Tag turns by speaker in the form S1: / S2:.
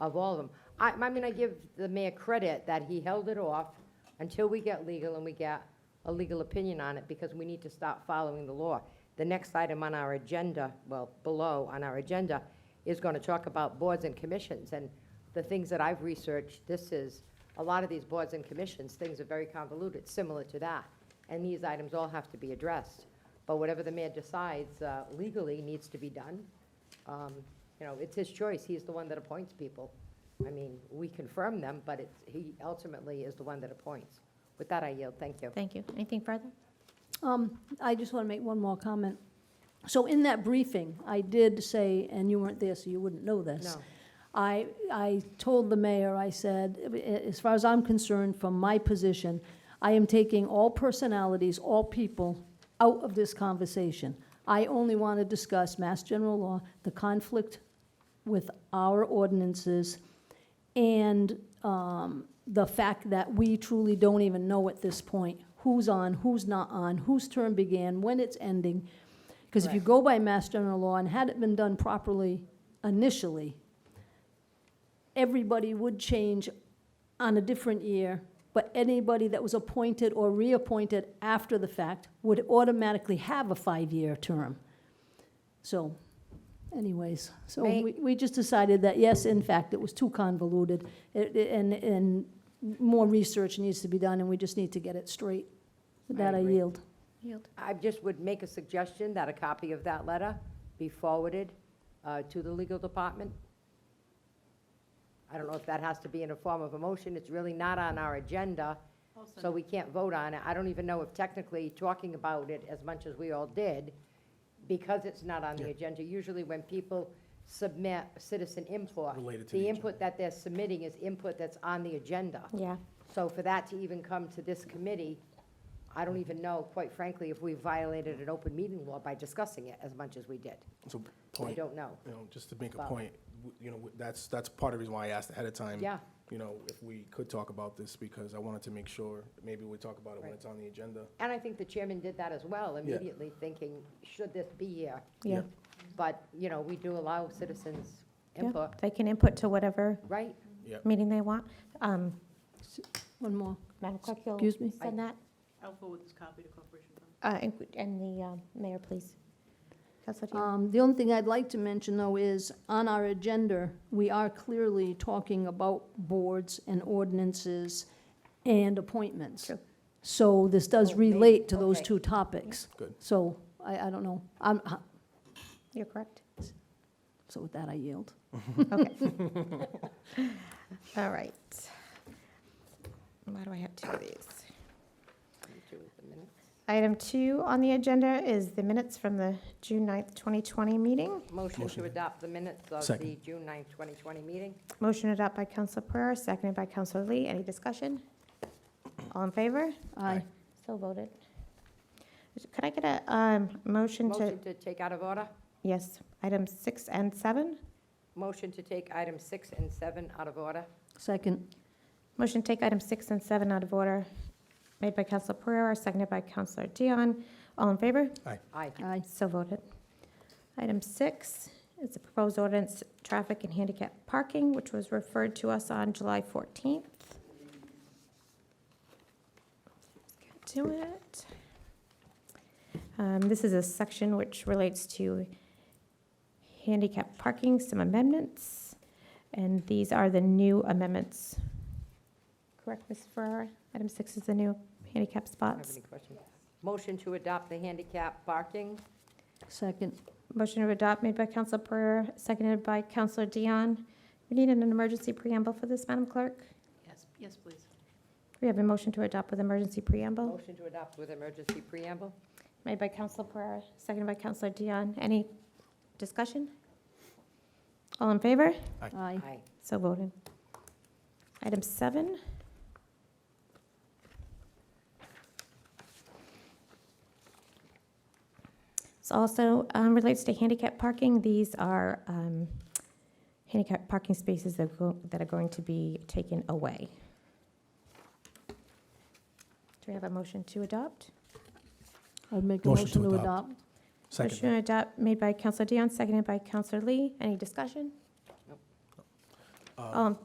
S1: of all of them. I, I mean, I give the mayor credit that he held it off until we get legal and we get a legal opinion on it, because we need to stop following the law. The next item on our agenda, well, below on our agenda, is going to talk about boards and commissions, and the things that I've researched, this is, a lot of these boards and commissions, things are very convoluted, similar to that, and these items all have to be addressed. But whatever the mayor decides uh, legally needs to be done. Um, You know, it's his choice, he's the one that appoints people. I mean, we confirm them, but it's, he ultimately is the one that appoints. With that, I yield, thank you.
S2: Thank you. Anything further?
S3: Um, I just want to make one more comment. So in that briefing, I did say, and you weren't there, so you wouldn't know this.
S1: No,
S3: I, I told the mayor, I said, "A- as far as I'm concerned, from my position, I am taking all personalities, all people, out of this conversation. I only want to discuss Mass General Law, the conflict with our ordinances, and um, the fact that we truly don't even know at this point who's on, who's not on, whose term began, when it's ending. Because if you
S1: Correct.
S3: go by Mass General Law, and had it been done properly initially, everybody would change on a different year, but anybody that was appointed or reappointed after the fact would automatically have a five-year term. So anyways, so
S1: May-
S3: we, we just decided that, yes, in fact, it was too convoluted, it- it- and, and more research needs to be done, and we just need to get it straight. With
S1: I
S3: that, I
S1: agree.
S3: yield.
S2: Yield.
S1: I just would make a suggestion that a copy of that letter be forwarded uh, to the legal department. I don't know if that has to be in a form of a motion, it's really not on our agenda, so we can't vote on it. I don't even know if technically talking about it as much as we all did, because it's not on the agenda, usually when people submit citizen input,
S4: Related to
S1: the
S4: the
S1: input that they're submitting is input that's on the agenda.
S2: Yeah.
S1: So for that to even come to this committee, I don't even know, quite frankly, if we violated an open meeting law by discussing it as much as we did.
S4: So,
S1: I
S4: point, you
S1: don't know.
S4: know, just to make a
S1: Well-
S4: point, w- you know, w- that's, that's part of the reason why I asked ahead of time.
S1: Yeah.
S4: You know, if we could talk about this, because I wanted to make sure, maybe we talk about it when
S1: Right.
S4: it's on the agenda.
S1: And I think the chairman did that as well, immediately thinking, should this be here?
S2: Yeah.
S1: But, you know, we do allow citizens
S2: Yeah.
S1: input,
S2: They can input to whatever
S1: right?
S2: meeting they want. Um,
S3: One more,
S2: Madam Clerk, you'll
S3: excuse me?
S2: send that,
S5: I'll forward this copy to Corporation Fund.
S2: uh, and- and the um, mayor, please. Councilor Dion.
S3: Um, The only thing I'd like to mention, though, is on our agenda, we are clearly talking about boards and ordinances and appointments.
S2: True.
S3: So this does
S1: Oh, maybe.
S3: relate to those
S1: Okay.
S3: two topics.
S4: Good.
S3: So I, I don't know. I'm, uh,
S2: You're correct.
S3: so with that, I yield.
S2: All right. Why do I have two of these? Item two on the agenda is the minutes from the June 9th, 2020 meeting.
S1: Motion to
S4: Motion.
S1: adopt the minutes of the
S4: Second.
S1: June 9th, 2020 meeting.
S2: Motion adopted by Councilor Pereira, seconded by Councilor Lee. Any discussion? All in favor?
S3: Aye.
S2: So voted. Could I get a um, motion to,
S1: Motion to take out of order.
S2: yes, items six and seven?
S1: Motion to take items six and seven out of order.
S3: Second,
S2: Motion to take items six and seven out of order, made by Councilor Pereira, seconded by Councilor Dion. All in favor?
S1: Aye.
S3: aye.
S2: So voted. Item six is the proposed ordinance, traffic and handicap parking, which was referred to us on July 14th. Let's get to it. Um, This is a section which relates to handicap parking, some amendments, and these are the new amendments. Correct, Ms. Ferrara? Item six is the new handicap
S1: I don't have
S2: spots.
S1: any questions. Motion to adopt the handicap parking.
S3: Second,
S2: Motion to adopt made by Council Pereira, seconded by Councilor Dion. We need an emergency preamble for this, Madam Clerk.
S5: Yes, yes, please.
S2: We have a motion to adopt with emergency preamble
S1: Motion to adopt with emergency preamble.
S2: made by Council Pereira, seconded by Councilor Dion. Any discussion? All in favor?
S3: aye.
S1: Aye.
S2: So voted. Item seven. This also um, relates to handicap parking. These are um, handicap parking spaces that go- that are going to be taken away. Do we have a motion to adopt?
S3: I'd make a motion to adopt.
S2: Motion to adopt made by Counselor Dion, seconded by Counselor Lee. Any discussion?
S4: Um,
S2: All in